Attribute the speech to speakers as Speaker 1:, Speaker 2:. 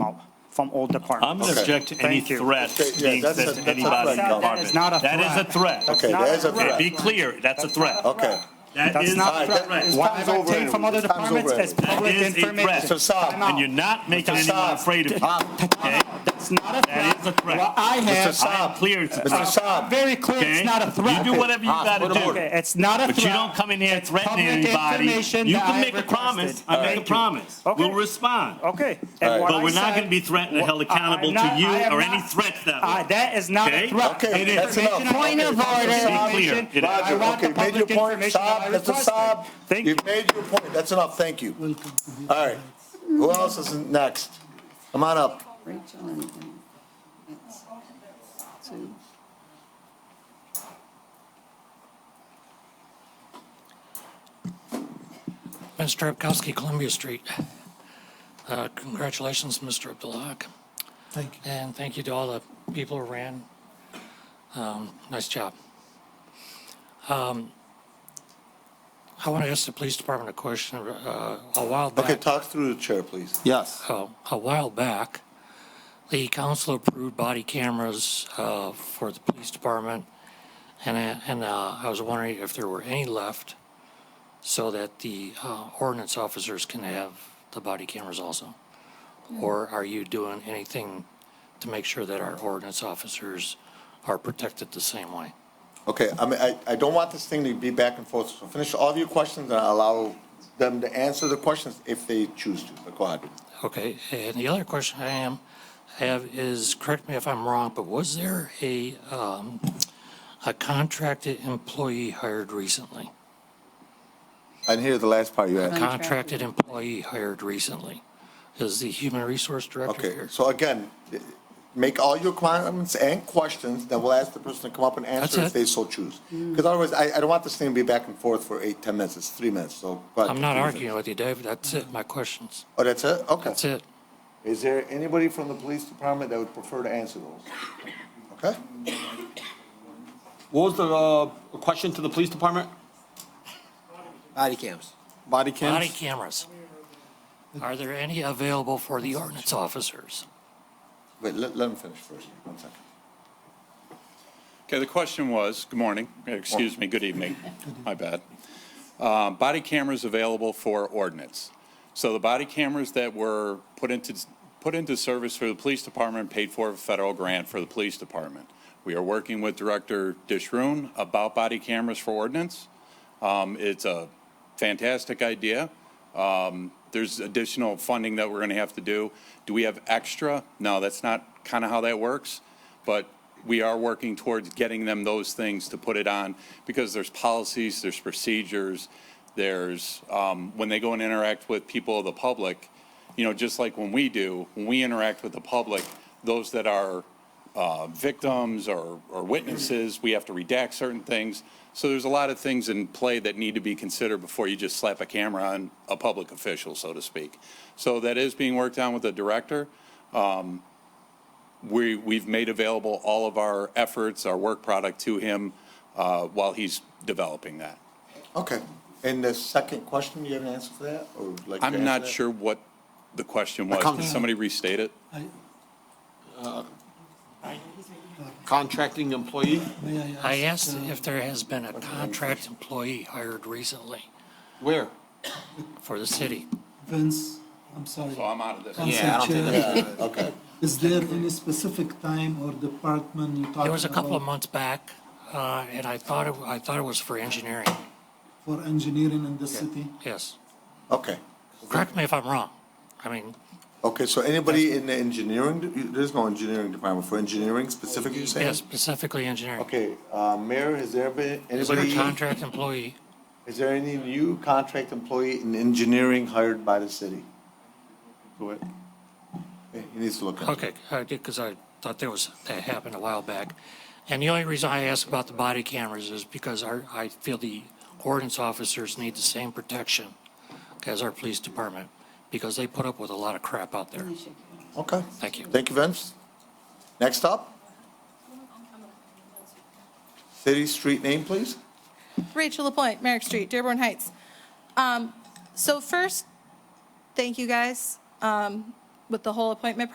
Speaker 1: from all
Speaker 2: I'm
Speaker 1: departments.
Speaker 2: going to object to any
Speaker 1: Thank you.
Speaker 2: threat
Speaker 3: Okay, yeah,
Speaker 2: being
Speaker 3: that's a-
Speaker 2: said
Speaker 3: that's
Speaker 2: to
Speaker 3: a
Speaker 2: anybody in
Speaker 3: threat,
Speaker 2: the
Speaker 3: Governor.
Speaker 2: department.
Speaker 1: That is not a
Speaker 2: That is a
Speaker 1: threat.
Speaker 2: threat.
Speaker 3: Okay,
Speaker 1: not
Speaker 3: that is a
Speaker 1: a threat.
Speaker 2: Okay,
Speaker 3: threat.
Speaker 2: Be clear, that's a threat.
Speaker 3: Okay.
Speaker 2: That
Speaker 1: That's
Speaker 2: is,
Speaker 1: not a
Speaker 3: Alright,
Speaker 2: and
Speaker 3: that-
Speaker 1: threat.
Speaker 3: time's
Speaker 1: What I've
Speaker 3: over
Speaker 1: obtained from
Speaker 3: anyway.
Speaker 1: other
Speaker 3: Time's over
Speaker 1: departments is
Speaker 2: That
Speaker 1: public
Speaker 2: is a threat.
Speaker 1: information.
Speaker 2: So
Speaker 3: Saab,
Speaker 1: Time out.
Speaker 2: you're not making anyone
Speaker 3: Saab.
Speaker 2: afraid of you. Okay?
Speaker 1: That's not a threat.
Speaker 2: That is a threat.
Speaker 1: What I
Speaker 3: Mr.
Speaker 1: have,
Speaker 2: I am
Speaker 3: Saab.
Speaker 2: clear to-
Speaker 3: Mr. Saab,
Speaker 1: very clear,
Speaker 2: Okay?
Speaker 1: it's not a threat.
Speaker 2: You do whatever you
Speaker 4: Ah,
Speaker 2: got to
Speaker 4: put 'em
Speaker 2: do.
Speaker 4: order.
Speaker 1: Okay, It's not a threat.
Speaker 2: But you don't come in here and threaten
Speaker 1: Public
Speaker 2: anybody.
Speaker 1: information
Speaker 2: You
Speaker 1: that
Speaker 2: can
Speaker 1: I
Speaker 2: make a promise,
Speaker 1: requested.
Speaker 2: I make
Speaker 1: Thank
Speaker 2: a
Speaker 1: you.
Speaker 2: promise.
Speaker 1: Okay.
Speaker 2: We'll respond.
Speaker 1: Okay.
Speaker 3: All right.
Speaker 1: and what
Speaker 2: But we're
Speaker 1: I
Speaker 2: not
Speaker 1: said-
Speaker 2: going to be threatened or held
Speaker 1: I- I'm
Speaker 2: accountable to
Speaker 1: not-
Speaker 2: you
Speaker 1: I am
Speaker 2: or any
Speaker 1: not-
Speaker 2: threats that
Speaker 1: Uh,
Speaker 2: way.
Speaker 1: that is not
Speaker 2: Okay?
Speaker 1: a threat.
Speaker 3: Okay,
Speaker 2: It is.
Speaker 3: that's enough.
Speaker 1: Information-
Speaker 3: Point of
Speaker 1: Be
Speaker 3: order.
Speaker 2: clear.
Speaker 1: information.
Speaker 2: It is.
Speaker 1: I
Speaker 3: Roger,
Speaker 1: want the
Speaker 3: okay, made your
Speaker 1: public
Speaker 3: point,
Speaker 1: information that I
Speaker 3: Saab, Mr.
Speaker 1: requested.
Speaker 3: Saab.
Speaker 1: Thank you.
Speaker 3: You've made your point, that's enough, thank you. All right, who else is next? Come on up.
Speaker 5: Rachel and and it's Sue.
Speaker 6: Ben Strapkowski, Columbia Street. Uh, Congratulations, Mr. Abdalak. Thank you. And thank you to all the people who ran. Um, Nice job. Um, I want to ask the police department a question. uh, A while
Speaker 3: Okay,
Speaker 6: back,
Speaker 3: talk through the chair, please.
Speaker 4: Yes.
Speaker 6: oh, a while back, the council approved body cameras uh, for the police department, and I- and uh, I was wondering if there were any left so that the uh, ordinance officers can have the body cameras also? Or are you doing anything to make sure that our ordinance officers are protected the same way?
Speaker 3: Okay, I mean, I, I don't want this thing to be back and forth, so finish all of your questions and allow them to answer the questions if they choose to, but go ahead.
Speaker 6: Okay, and the other question I am, have is, correct me if I'm wrong, but was there a, um, a contracted employee hired recently?
Speaker 3: I didn't hear the last part you asked.
Speaker 6: Contracted employee hired recently? Is the human resource director
Speaker 3: Okay,
Speaker 6: here?
Speaker 3: so again, make all your comments and questions, then we'll ask the person to come up and answer
Speaker 6: That's
Speaker 3: if
Speaker 6: it.
Speaker 3: they so choose. Because otherwise, I, I don't want this thing to be back and forth for eight, 10 minutes, it's three minutes, so. go ahead,
Speaker 6: I'm not
Speaker 3: continue.
Speaker 6: arguing with you, David, that's it, my questions,
Speaker 3: Oh, that's it? Okay.
Speaker 6: that's it.
Speaker 3: Is there anybody from the police department that would prefer to answer those? Okay?
Speaker 4: What was the uh, question to the police department?
Speaker 7: Body cams.
Speaker 4: Body cams?
Speaker 6: Body cameras. Are there any available for the ordinance officers?
Speaker 3: Wait, let, let him finish first, one second.
Speaker 8: Okay, the question was, good morning, excuse me, good evening, my bad. Uh, Body cameras available for ordinance. So the body cameras that were put into, put into service for the police department, paid for a federal grant for the police department. We are working with Director Dishroon about body cameras for ordinance. Um, It's a fantastic idea. Um, There's additional funding that we're going to have to do. Do we have extra? No, that's not kind of how that works, but we are working towards getting them those things to put it on because there's policies, there's procedures, there's, um, when they go and interact with people of the public, you know, just like when we do, when we interact with the public, those that are uh, victims or or witnesses, we have to redact certain things. So there's a lot of things in play that need to be considered before you just slap a camera on a public official, so to speak. So that is being worked on with the director. Um, We, we've made available all of our efforts, our work product to him uh, while he's developing that.
Speaker 3: Okay, and the second question, you have an answer for that, or would you like to
Speaker 8: I'm
Speaker 3: answer
Speaker 8: not
Speaker 3: that?
Speaker 8: sure what the question was. Can somebody restate it?
Speaker 4: Contracting employee?
Speaker 6: I asked if there has been a contract employee hired recently
Speaker 4: Where?
Speaker 6: for the city.
Speaker 9: Vince, I'm sorry.
Speaker 8: So I'm out of this.
Speaker 4: Yeah, I don't
Speaker 9: Council Chair,
Speaker 3: Okay,
Speaker 9: Is there any specific time or department you talking about?
Speaker 6: It was a couple of months back, uh, and I thought, it- I thought it was for engineering,
Speaker 9: For engineering in the city?
Speaker 6: yes.
Speaker 3: okay,
Speaker 6: Correct me if I'm wrong. I mean,
Speaker 3: okay, so anybody in the engineering, there's no engineering department, for engineering specifically, you saying?
Speaker 6: yeah, specifically engineering.
Speaker 3: Okay, uh, Mayor, has there been,
Speaker 6: Is there a
Speaker 3: anybody,
Speaker 6: contract employee?
Speaker 3: is there any new contract employee in engineering hired by the city? Go ahead. Hey, He needs to look into it.
Speaker 6: Okay, I did, because I thought there was, that happened a while back. And the only reason I asked about the body cameras is because our, I feel the ordinance officers need the same protection as our police department, because they put up with a lot of crap out there.
Speaker 3: Okay,
Speaker 6: Thank you.
Speaker 3: thank you, Vince. Next up? City street name, please?
Speaker 10: Rachel Lapointe, Merrick Street, Dearborn Heights. Um, So first, thank you guys um, with the whole appointment